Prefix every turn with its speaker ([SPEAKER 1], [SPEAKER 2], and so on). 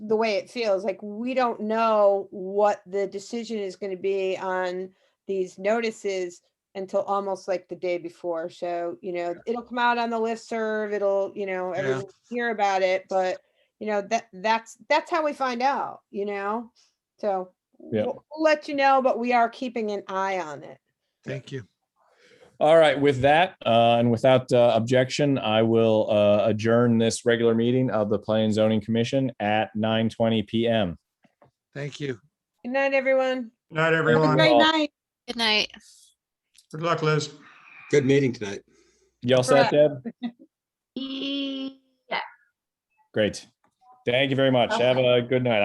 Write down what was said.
[SPEAKER 1] the way it feels, like we don't know what the decision is going to be on these notices until almost like the day before. So, you know, it'll come out on the listserv, it'll, you know,
[SPEAKER 2] Yeah.
[SPEAKER 1] everyone will hear about it, but you know, that, that's, that's how we find out, you know? So
[SPEAKER 3] Yeah.
[SPEAKER 1] we'll we'll let you know, but we are keeping an eye on it.
[SPEAKER 2] Thank you.
[SPEAKER 3] All right, with that, uh, and without uh, objection, I will uh, adjourn this regular meeting of the Planning and Zoning Commission at 9:20 PM.
[SPEAKER 2] Thank you.
[SPEAKER 1] Good night, everyone.
[SPEAKER 4] Night,
[SPEAKER 1] Have a
[SPEAKER 4] everyone.
[SPEAKER 1] great
[SPEAKER 3] Well-
[SPEAKER 1] night.
[SPEAKER 5] Good night.
[SPEAKER 4] Good luck, Liz.
[SPEAKER 6] Good meeting tonight.
[SPEAKER 3] Y'all set,
[SPEAKER 1] Correct.
[SPEAKER 3] Deb?
[SPEAKER 7] E-
[SPEAKER 3] Great. Thank you very much. Have a good night.